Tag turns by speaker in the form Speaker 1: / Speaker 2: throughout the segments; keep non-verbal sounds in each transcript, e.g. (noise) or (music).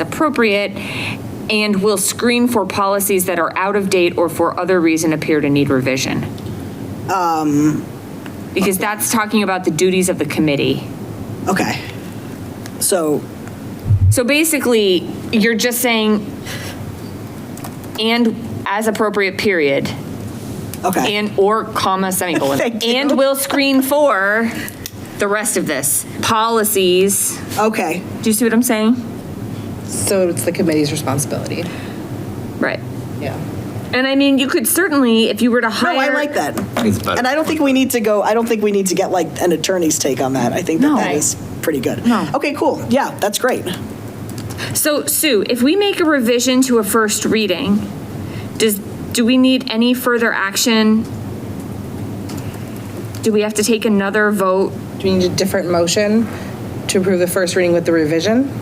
Speaker 1: it's appropriate, and will screen for policies that are out of date or for other reason appear to need revision.
Speaker 2: Um,
Speaker 1: Because that's talking about the duties of the committee.
Speaker 2: Okay. So,
Speaker 1: So basically, you're just saying, and as appropriate, period,
Speaker 2: okay.
Speaker 1: and, or comma, semicolon.
Speaker 2: (laughs) Thank you.
Speaker 1: And will screen for the rest of this, policies.
Speaker 2: Okay.
Speaker 1: Do you see what I'm saying?
Speaker 3: So it's the committee's responsibility.
Speaker 1: Right.
Speaker 3: Yeah.
Speaker 1: And I mean, you could certainly, if you were to
Speaker 2: No,
Speaker 1: hire.
Speaker 2: I like that.
Speaker 4: It's better.
Speaker 2: And I don't think we need to go, I don't think we need to get like an attorney's take on that. I think that
Speaker 1: No.
Speaker 2: that is pretty good.
Speaker 1: No.
Speaker 2: Okay, cool. Yeah, that's great.
Speaker 1: So Sue, if we make a revision to a first reading, does, do we need any further action? Do we have to take another vote?
Speaker 3: Do we need a different motion to approve the first reading with the revision?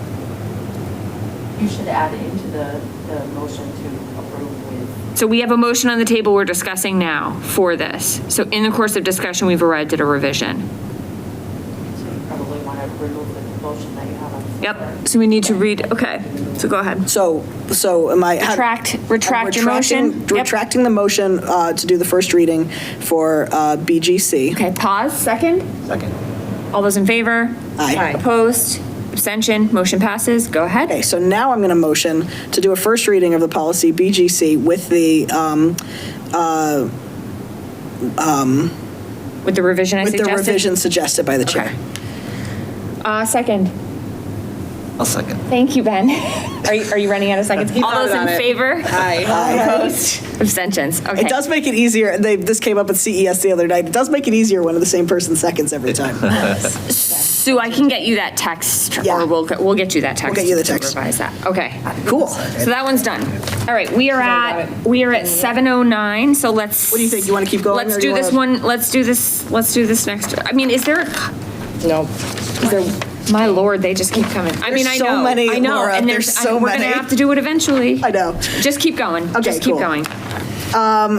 Speaker 5: You should add it into the, the motion to approve with
Speaker 1: So we have a motion on the table we're discussing now for this. So in the course of discussion, we've arrived at a revision.
Speaker 5: So you probably want to remove the motion that you have on the floor.
Speaker 1: Yep, so we need to read, okay, so go ahead.
Speaker 2: So, so am I?
Speaker 1: Retract-
Speaker 2: I'm
Speaker 1: retract your motion?
Speaker 2: retracting-
Speaker 1: Yep.
Speaker 2: Retracting the motion uh, to do the first reading for uh, BGC.
Speaker 1: Okay, pause, second?
Speaker 4: Second.
Speaker 1: All those in favor?
Speaker 2: Aye.
Speaker 1: Opposed? Abstention? Motion passes? Go ahead.
Speaker 2: Okay, so now I'm going to motion to do a first reading of the policy BGC with the, um,
Speaker 1: With the revision I
Speaker 2: with the
Speaker 1: suggested?
Speaker 2: revision suggested by the
Speaker 1: Okay.
Speaker 2: chair.
Speaker 1: Uh, second.
Speaker 4: I'll second.
Speaker 1: Thank you, Ben. (laughs) Are you, are you running out of seconds?
Speaker 3: He
Speaker 1: All those
Speaker 3: voted on
Speaker 1: in
Speaker 3: it.
Speaker 1: favor?
Speaker 3: Aye.
Speaker 1: Opposed? Abstentions? Okay.
Speaker 2: It does make it easier. They, this came up at CES the other night. It does make it easier when the same person seconds every time.
Speaker 1: Sue, I can get you that text,
Speaker 2: Yeah.
Speaker 1: or we'll, we'll get you that text.
Speaker 2: get you the
Speaker 1: to
Speaker 2: text.
Speaker 1: Revise that. Okay.
Speaker 2: Cool.
Speaker 1: So that one's done. All right, we are at, we are at 7:09, so let's. What
Speaker 2: do you think? You wanna keep going,
Speaker 1: Let's
Speaker 2: or do
Speaker 1: do
Speaker 2: you
Speaker 1: this
Speaker 2: wanna-
Speaker 1: one, let's do this, let's do this next. I mean, is there, a-
Speaker 3: Nope.
Speaker 1: is there, my lord, they just keep coming. I mean, I
Speaker 2: There's so
Speaker 1: know,
Speaker 2: many,
Speaker 1: I know,
Speaker 2: Laura,
Speaker 1: and
Speaker 2: there's
Speaker 1: there's, I-
Speaker 2: so
Speaker 1: we're gonna
Speaker 2: many.
Speaker 1: have to do it eventually.
Speaker 2: I know.
Speaker 1: Just keep going.
Speaker 2: Okay,
Speaker 1: Just keep
Speaker 2: cool.
Speaker 1: going.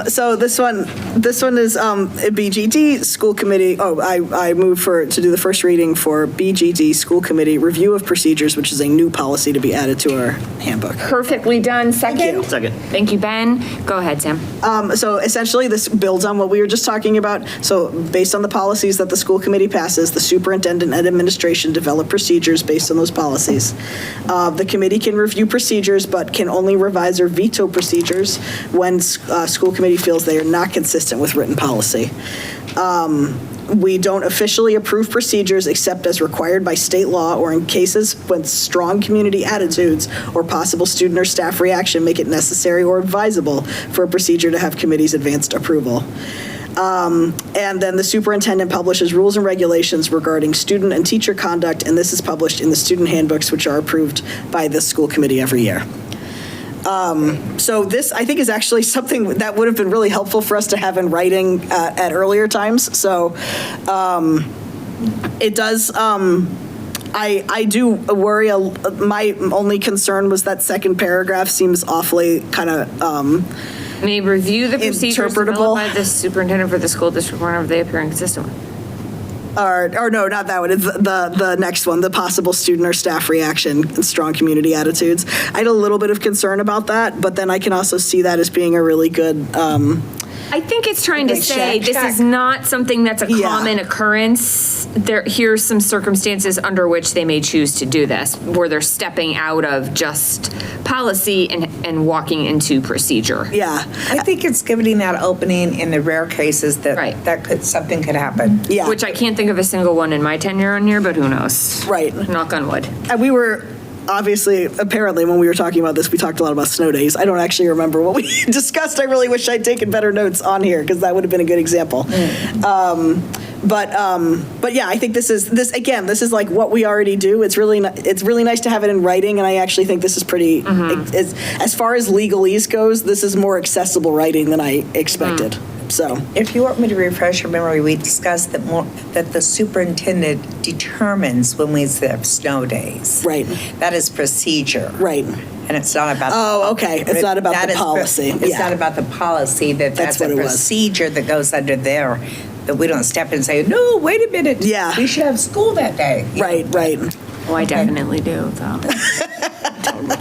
Speaker 2: So this one, this one is um, a BGD school committee. Oh, I, I move for, to do the first reading for BGD school committee review of procedures, which is a new policy to be added to our handbook.
Speaker 1: Perfectly done. Second?
Speaker 4: Second.
Speaker 1: Thank you, Ben. Go ahead, Sam.
Speaker 2: Um, So essentially, this builds on what we were just talking about. So based on the policies that the school committee passes, the superintendent and administration develop procedures based on those policies. Uh, The committee can review procedures, but can only revise or veto procedures when uh, school committee feels they are not consistent with written policy. We don't officially approve procedures except as required by state law or in cases when strong community attitudes or possible student or staff reaction make it necessary or advisable for a procedure to have committee's advanced approval. Um, And then the superintendent publishes rules and regulations regarding student and teacher conduct, and this is published in the student handbooks, which are approved by the school committee every year. Um, So this, I think, is actually (laughs) something that would have been really helpful for us to have in writing uh, at earlier times. So um, it does, um, I, I do worry, a- my only concern was that second paragraph seems awfully um, kind of,
Speaker 1: May review the procedures
Speaker 2: Interpretable.
Speaker 1: developed by the superintendent for the school district whenever they appear inconsistent.
Speaker 2: or, or no, not that one, it's the, the next one, the possible student or staff reaction and strong community attitudes. I had a little bit of concern about that, but then I can also see that as being a really good, um,
Speaker 1: I think it's trying to
Speaker 2: Like
Speaker 1: say,
Speaker 2: check,
Speaker 1: this is not something that's a
Speaker 2: Yeah.
Speaker 1: common occurrence. There, here's some circumstances under which they may choose to do this, where they're stepping out of just policy and, and walking into procedure.
Speaker 2: yeah,
Speaker 6: I think it's giving that opening in the rare cases
Speaker 1: Right.
Speaker 6: that, that could, something could happen.
Speaker 2: yeah.
Speaker 1: Which I can't think of a single one in my tenure on here, but who knows?
Speaker 2: Right.
Speaker 1: Knock on wood.
Speaker 2: And we were, obviously, apparently, when we were talking about this, we talked a lot about snow days. I don't actually remember what we (laughs) discussed. I really wish I'd taken better notes on here because that would have been a good example. Um, But, um, but yeah, I think this is, this, again, this is like what we already do. It's really, ni- it's really nice to have it in writing, and I actually think this is pretty, as, as far as legalese goes, this is more accessible writing than I expected, so.
Speaker 6: If you want me to refresh your memory, we discussed that more, that the superintendent determines when we have snow days.
Speaker 2: Right.
Speaker 6: That is procedure.
Speaker 2: Right.
Speaker 6: And it's not about.
Speaker 2: Oh, okay. It's not about the
Speaker 6: That is-
Speaker 2: policy.
Speaker 6: It's
Speaker 2: Yeah.
Speaker 6: not about the policy, that
Speaker 2: That's
Speaker 6: that's a
Speaker 2: what it was.
Speaker 6: procedure that goes under there, that we don't step in and say, no, wait a minute.
Speaker 2: Yeah.
Speaker 6: We should have school that day.
Speaker 2: Right, right.
Speaker 1: Oh, I definitely do, though.